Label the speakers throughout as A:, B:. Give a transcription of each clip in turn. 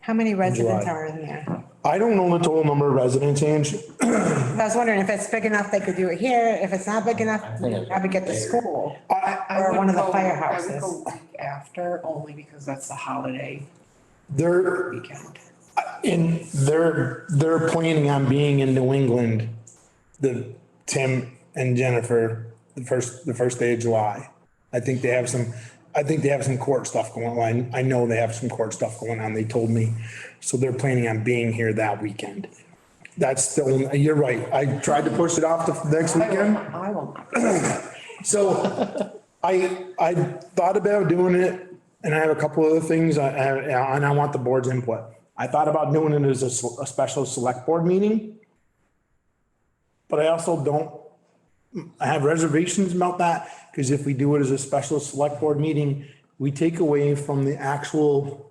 A: How many residents
B: July.
A: are in there?
B: I don't know the total number of residents, Ange.
A: I was wondering if it's big enough, they could do it here. If it's not big enough,
C: think it's-
A: probably get the school.
B: I,
D: I
A: Or one of the
D: would go- I
A: firehouses.
D: would go week after, only because that's the holiday
B: they're,
D: weekend.
B: in, they're, they're planning on being in New England, the, Tim and Jennifer, the first, the first day of July. I think they have some, I think they have some court stuff going on. I know they have some court stuff going on, they told me. So they're planning on being here that weekend. That's still, you're right. I tried to push it off to next
D: I will,
B: weekend.
D: I will not.
B: So I, I thought about doing it and I have a couple other things I- I- and I want the board's input. I thought about doing it as a, s- a special select board meeting. But I also don't, I have reservations about that because if we do it as a special select board meeting, we take away from the actual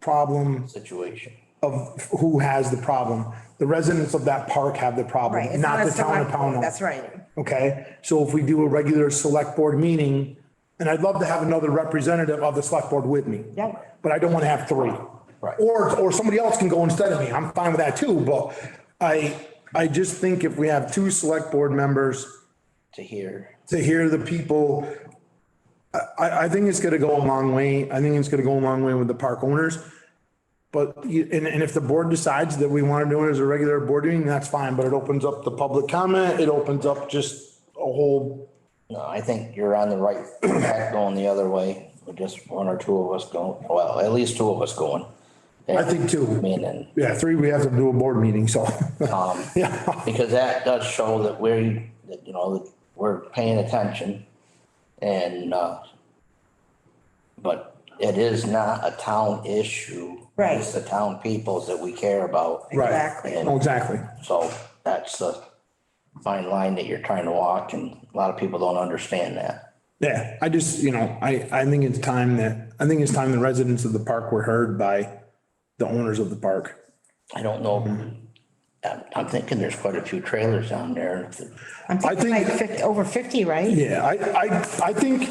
B: problem
C: situation.
B: of who has the problem. The residents of that park have the
A: Right.
B: problem,
A: it's
B: not
A: a
B: the town of
A: select board,
B: Pownell.
A: That's right.
B: Okay, so if we do a regular select board meeting, and I'd love to have another representative of the select board with me.
A: Yeah.
B: But I don't want to have three.
C: Right.
B: Or, or somebody else can go instead of me. I'm fine with that too, but I, I just think if we have two select board members
C: to hear.
B: to hear the people, I- I, I think it's gonna go a long way. I think it's gonna go a long way with the park owners. But, you- and, and if the board decides that we want to do it as a regular board meeting, that's fine, but it opens up the public comment. It opens up just a whole
C: No, I think you're on the right track going the other way, with just one or two of us going, well, at least two of us going.
B: I think two.
C: I mean, and,
B: Yeah, three, we have to do a board meeting, so,
C: um,
B: yeah,
C: because that does show that we're, that, you know, that we're paying attention and, uh, but it is not a town issue.
A: Right.
C: It's the town peoples that we care about.
B: right.
A: Exactly.
B: Oh, Exactly.
C: So that's the fine line that you're trying to walk and a lot of people don't understand that.
B: Yeah, I just, you know, I, I think it's time that, I think it's time the residents of the park were heard by the owners of the park.
C: I don't know. I'm, I'm thinking there's quite a few trailers down there. and if-
A: I'm thinking
B: think-
A: like fifty, over fifty, right?
B: Yeah, I, I, I think,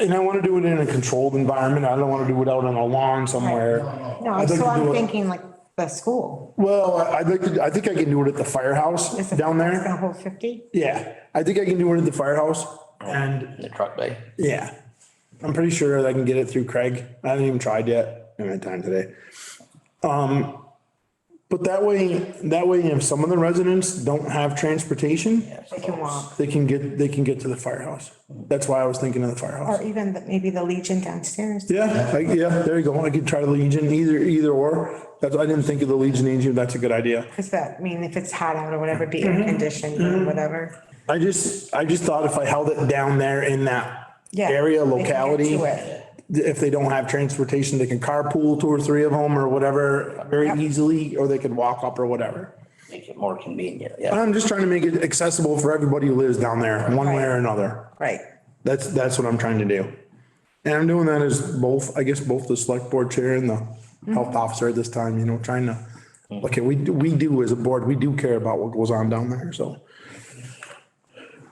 B: and I want to do it in a controlled environment. I don't want to do it out on a lawn somewhere.
A: No,
B: I'd like
A: so
B: to do
A: I'm
B: it-
A: thinking like the school.
B: Well, I- I'd like to, I think I can do it at the firehouse
A: Is the
B: down
A: firehouse
B: there.
A: Gonna hold fifty?
B: Yeah, I think I can do it at the firehouse and
C: in The truck bay.
B: Yeah, I'm pretty sure I can get it through Craig. I haven't even tried yet. I haven't had time today. Um, but that way, that way, if some of the residents don't have transportation,
A: They can walk,
B: they can get, they can get to the firehouse. That's why I was thinking of the
A: or
B: firehouse.
A: even the- maybe the Legion downstairs.
B: Yeah, I- yeah, there you go. I could try the Legion, either, either or. That's, I didn't think of the Legion either. That's a good idea.
A: Cause that, I mean, if it's hot out or whatever, be
B: Mm-hmm.
A: air conditioned or whatever.
B: I just, I just thought if I held it down there in that
A: Yeah,
B: area
A: they can get
B: locality.
A: to it.
B: if they don't have transportation, they can carpool two or three of them or whatever very easily, or they could walk up or whatever.
C: Make it more convenient, yeah.
B: I'm just trying to make it accessible for everybody who lives down there, one way or another.
A: Right,
B: That's, that's what I'm trying to do. And I'm doing that as both, I guess, both the select board chair and the health officer at this time, you know, trying to, okay, we, do- we do as a board, we do care about what goes on down there, so.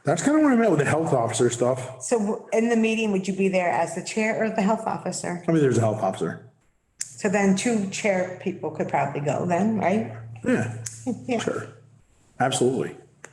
B: That's kind of where I'm at with the health officer stuff.
A: so w- in the meeting, would you be there as the chair or the health officer?
B: I mean, there's a health officer.
A: So then two chair people could probably go then, right?
B: Yeah.
A: Yeah.
B: Sure, absolutely. Yeah.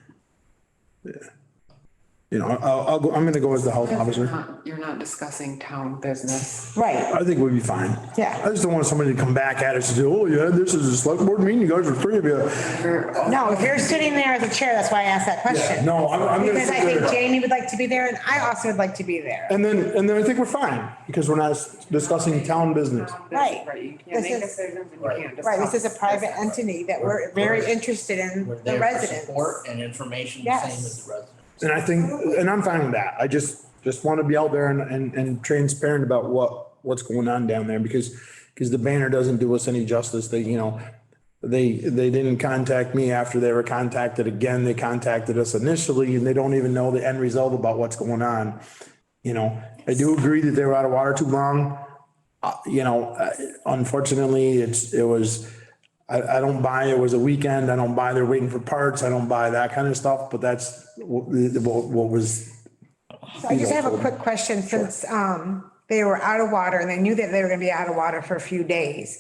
B: You know, I'll, I'll go, I'm gonna go as the health officer.
D: Not- You're not discussing town business.
A: Right,
B: I think we'll be fine.
A: Yeah.
B: I just don't want somebody to come back at us and say, oh, yeah, this is a select board meeting, you guys are three of you.
D: You're-
A: no, if you're sitting there as a chair, that's why I asked that question.
B: No, I'm, I'm gonna.
A: Because I
B: sit
A: think
B: there.
A: Jamie would like to be there and I also would like to be there.
B: And then, and then I think we're fine, because we're not discussing town business.
A: Right.
D: Right, you can't
A: This
D: make
A: is-
D: decisions and you can't discuss.
A: Right, this is a private entity that we're very interested in
C: We're
A: the
C: there for
A: residents.
C: Support and information, the same as the residents.
B: And I think, and I'm fine with that. I just, just want to be out there and, and, and transparent about what, what's going on down there because, because the banner doesn't do us any justice. They, you know, they, they didn't contact me after they were contacted again. They contacted us initially and they don't even know the end result about what's going on. You know, I do agree that they were out of water too long. Uh, You know, uh, unfortunately, it's, it was, I, I don't buy it was a weekend. I don't buy they're waiting for parts. I don't buy that kind of stuff, but that's what, what what was,
A: I just have a quick question since um, they were out of water and they knew that they were going to be out of water for a few days.